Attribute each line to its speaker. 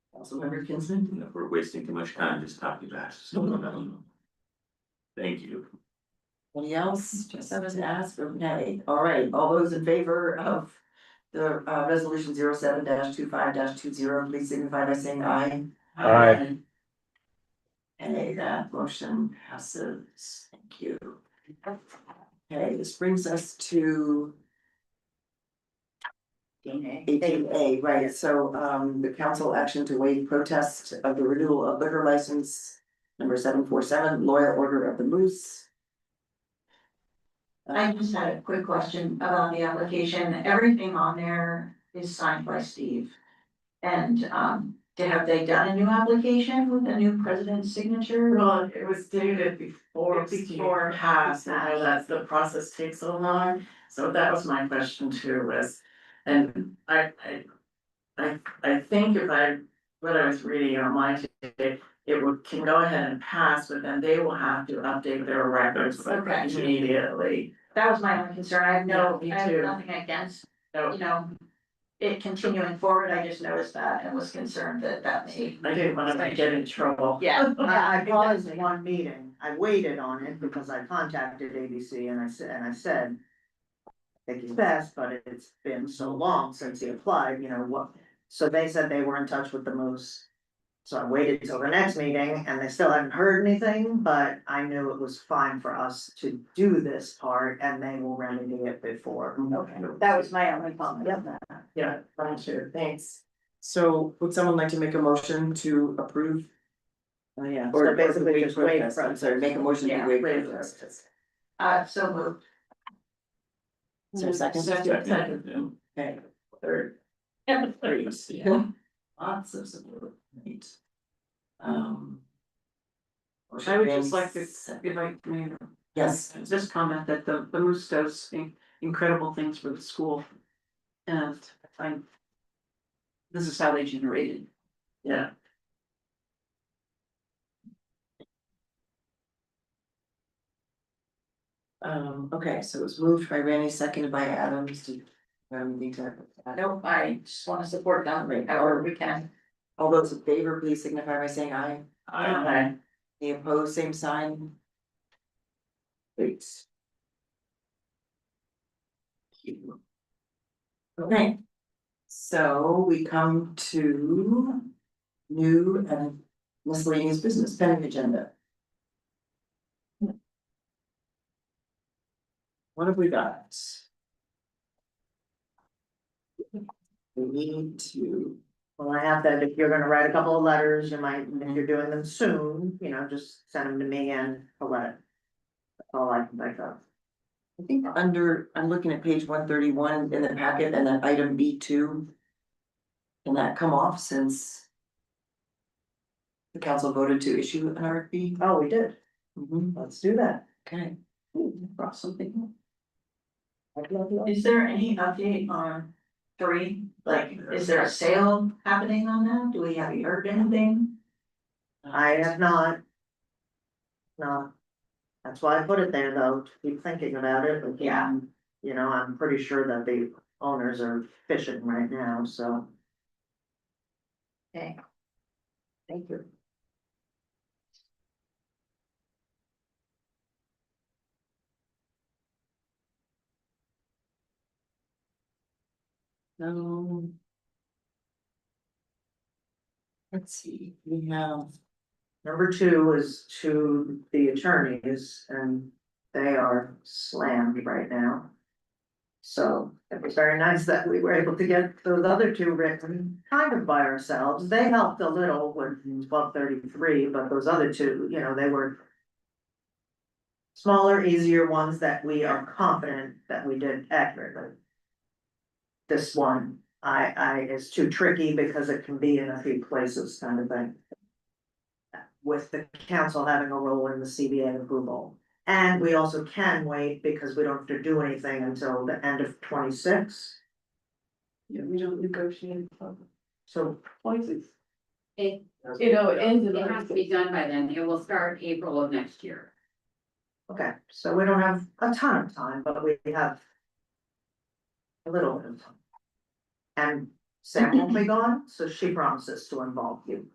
Speaker 1: Councilmember Kinsman.
Speaker 2: you know, we're wasting too much time just talking about. it, so, um, Thank you.
Speaker 1: Any else, just have us ask or nay? All right, all those in favor of the uh resolution zero seven dash two five dash two zero, please signify by saying aye.
Speaker 3: Aye.
Speaker 1: Hey, that motion passes. Thank you. Okay, this brings us to eighteen A, right, so um the council action to waive protest of the renewal of liquor license. Number seven four seven, loyal order of the moose. Uh,
Speaker 4: I just had a quick question about the application. Everything on there is signed by Steve. And um, did- have they done a new application with a new president's signature?
Speaker 5: Well, it was dated before, before half, and I realized the process takes so long, so that was my question too, was. And I, I, I, I think if I, what I was reading online today, it would, can go ahead and pass, but then they will have to update their records like,
Speaker 4: Okay.
Speaker 5: immediately.
Speaker 4: That was my only concern. I have no,
Speaker 5: Yeah, me
Speaker 4: I have
Speaker 5: too.
Speaker 4: nothing against,
Speaker 5: So
Speaker 4: you know, it continuing forward. I just noticed that and was concerned that that may.
Speaker 5: I didn't want to get in trouble.
Speaker 4: Yeah.
Speaker 6: I I paused one meeting, I waited on it because I contacted ABC and I said, and I said. I think it's best, but it's been so long since he applied, you know, what, so they said they were in touch with the moose. So I waited till the next meeting and they still hadn't heard anything, but I knew it was fine for us to do this part and they will remedy it before.
Speaker 4: Okay, that was my only comment on that.
Speaker 5: Yeah, me too, thanks.
Speaker 1: So would someone like to make a motion to approve? Oh, yeah.
Speaker 6: So basically just waive
Speaker 1: I'm sorry, make a motion to
Speaker 4: Yeah,
Speaker 1: waive
Speaker 5: waive
Speaker 1: protest.
Speaker 4: Uh, so moved.
Speaker 1: Is there a second?
Speaker 5: Second.
Speaker 2: Yeah.
Speaker 1: Okay, third,
Speaker 2: Yes, yeah.
Speaker 1: yeah, lots of support, right? Um.
Speaker 7: I would just
Speaker 1: motion
Speaker 7: like to,
Speaker 1: made,
Speaker 7: if I may,
Speaker 1: Yes,
Speaker 7: just comment that the, the Moose does in- incredible things for the school. And I, this is how they generated.
Speaker 5: Yeah.
Speaker 1: um, okay, so it was moved by Randy, seconded by Adams, do you um, need to?
Speaker 4: Nope, I just want to support them however we can.
Speaker 1: All those in favor, please signify by saying aye.
Speaker 2: I,
Speaker 5: Okay.
Speaker 1: The opposed, same sign. Great. Okay. So we come to new and miscellaneous business pending agenda. What have we got? We need to,
Speaker 6: Well, I have that, if you're gonna write a couple of letters, you might, if you're doing them soon, you know, just send them to me and a letter. That's all I can think of.
Speaker 1: I think under, I'm looking at page one thirty-one in the packet and then item B two. Can that come off since? The council voted to issue an RFP?
Speaker 6: Oh, we did,
Speaker 1: Mhm,
Speaker 6: let's do that.
Speaker 1: okay.
Speaker 7: Brought something.
Speaker 6: I'd love to-
Speaker 4: Is there any update on three? Like, is there a sale happening on that? Do we, have you heard anything?
Speaker 6: I
Speaker 1: uh,
Speaker 6: have not. No. That's why I put it there though, to keep thinking about it, like,
Speaker 4: Yeah.
Speaker 6: you know, I'm pretty sure that the owners are fishing right now, so.
Speaker 4: Okay.
Speaker 6: Thank you.
Speaker 1: Um, Let's see, we have,
Speaker 6: Number two is to the attorneys and they are slammed right now. So it was very nice that we were able to get those other two written kind of by ourselves. They helped a little with twelve thirty-three, but those other two, you know, they were smaller, easier ones that we are confident that we did accurately. This one, I, I, is too tricky because it can be in a few places kind of thing with the council having a role in the CBA approval. And we also can wait because we don't have to do anything until the end of twenty-six,
Speaker 7: Yeah, we don't negotiate.
Speaker 6: so.
Speaker 7: Places.
Speaker 8: You know, it has to be done by then, it will start April of next year.
Speaker 6: Okay, so we don't have a ton of time, but we have. A little bit of time. And Sam won't be gone, so she promises to involve you.